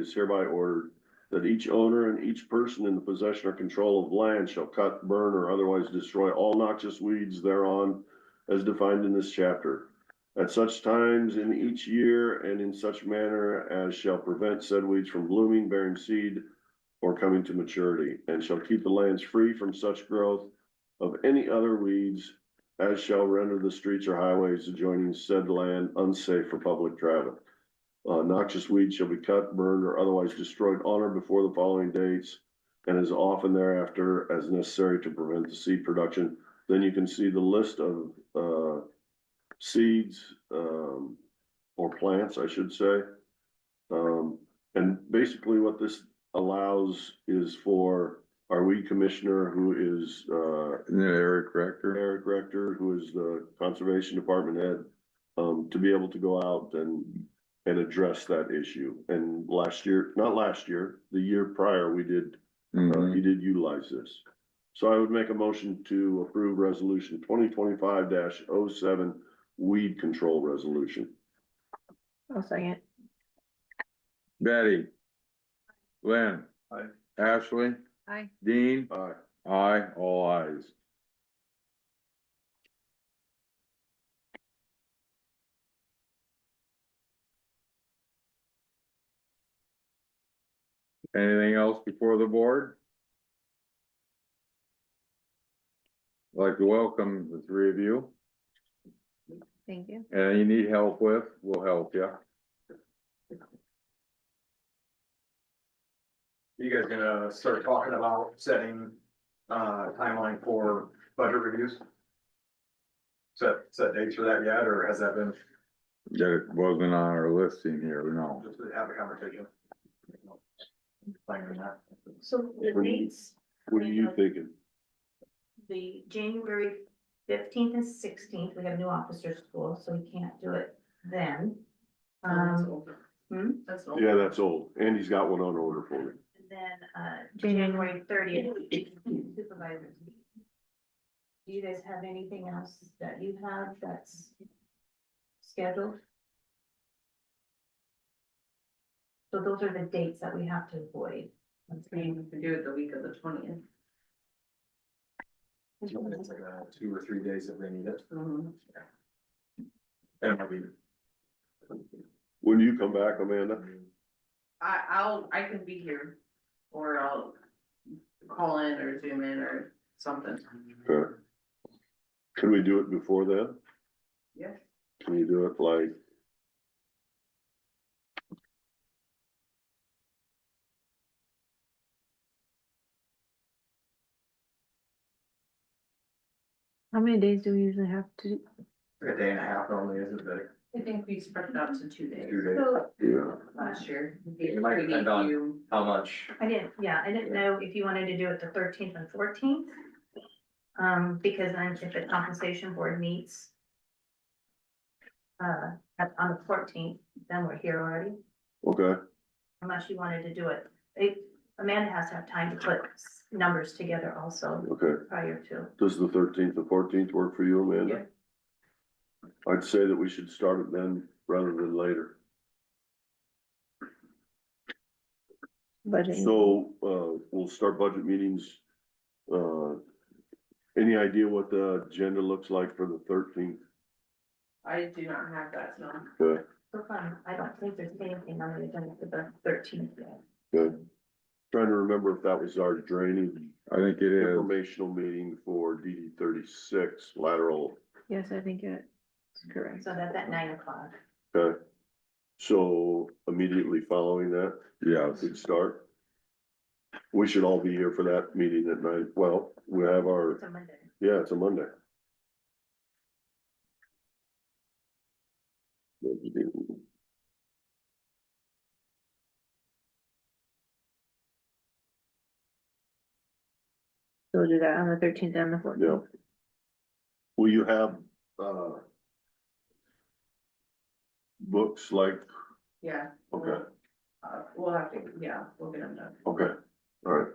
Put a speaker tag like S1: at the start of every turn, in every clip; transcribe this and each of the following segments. S1: is hereby ordered that each owner and each person in the possession or control of land shall cut, burn, or otherwise destroy all noxious weeds thereon as defined in this chapter, at such times in each year and in such manner as shall prevent said weeds from blooming, bearing seed, or coming to maturity, and shall keep the lands free from such growth of any other weeds as shall render the streets or highways adjoining said land unsafe for public travel. Uh, noxious weeds shall be cut, burned, or otherwise destroyed on or before the following dates and as often thereafter as necessary to prevent the seed production. Then you can see the list of, uh, seeds, um, or plants, I should say. Um, and basically what this allows is for our weed commissioner, who is, uh,
S2: Isn't it Eric Rector?
S1: Eric Rector, who is the Conservation Department head, um, to be able to go out and, and address that issue. And last year, not last year, the year prior, we did, uh,
S2: Mhm.
S1: he did utilize this. So I would make a motion to approve resolution twenty twenty-five 7 weed control resolution.
S3: I'll second.
S2: Betty. Lynn.
S1: Aye.
S2: Ashley,
S3: Aye.
S2: Dean,
S1: Aye.
S2: aye, all ayes. Anything else before the board? I'd Like to welcome the three of you,
S3: Thank you.
S2: and you need help with, we'll help you.
S4: You guys gonna start talking about setting, uh, timeline for budget reviews? Set, set dates for that yet, or has that been,
S2: That it wasn't on our listing here, no.
S4: just to have a conversation? Planning on that.
S5: So the
S1: What do you-
S5: dates,
S1: What are you thinking?
S5: the January fifteenth and sixteenth, we have new officer school, so we can't do it then. Um, hmm?
S1: Yeah, that's old. Andy's got one on order for me.
S5: and then, uh, January thirtieth supervisors. meeting. Do you guys have anything else that you have that's scheduled? So those are the dates that we have to avoid.
S6: mean, we can do it the week of the twentieth.
S4: It's like, uh, Two or three days if they need it, and it'll be.
S1: When do you come back, Amanda?
S6: I, I'll, I can be here, or I'll call in or zoom in or something.
S1: Okay. Can we do it before then?
S6: Yeah.
S1: Can you do it like?
S3: How many days do we usually have to?
S4: A day and a half normally isn't it,
S6: I think we spread it out to two days
S4: two days,
S5: So
S1: Yeah.
S6: last year.
S4: It might depend on- how much?
S5: I didn't, yeah, I didn't know if you wanted to do it the thirteenth and fourteenth. Um, because then if the compensation board meets. Uh, at- on the fourteenth, then we're here already,
S1: Okay,
S5: unless you wanted to do it. It- Amanda has to have time to put s- numbers together also
S1: okay.
S5: prior to.
S1: Does the thirteenth and fourteenth work for you, Amanda? I'd say that we should start it then rather than later.
S3: budget?
S1: So, uh, we'll start budget meetings. Uh, any idea what the agenda looks like for the thirteenth?
S6: I do not have that, so.
S5: So fun, I don't think there's anything on the agenda for the thirteenth yet.
S1: Good. Trying to remember if that was our draining
S2: I think it is.
S1: informational meeting for DD thirty-six lateral.
S3: Yes, I think it's correct.
S5: So that's at nine o'clock.
S1: Okay. So immediately following that,
S2: Yes,
S1: we'd start. We should all be here for that meeting at night. Well, we have our
S5: It's a Monday.
S1: Yeah, it's a Monday.
S3: So we'll do that on the thirteenth and the fourteenth.
S1: Will you have, uh, books like,
S6: Yeah.
S1: okay,
S6: Uh, we'll have to, yeah, we'll get them done.
S1: okay, all right.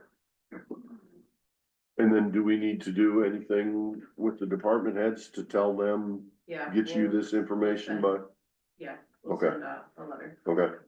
S1: And then do we need to do anything with the department heads to tell them,
S6: Yeah.
S1: get you
S6: we'll-
S1: this information by,
S6: Yeah. we'll
S1: Okay.
S6: Send out a letter.
S1: okay?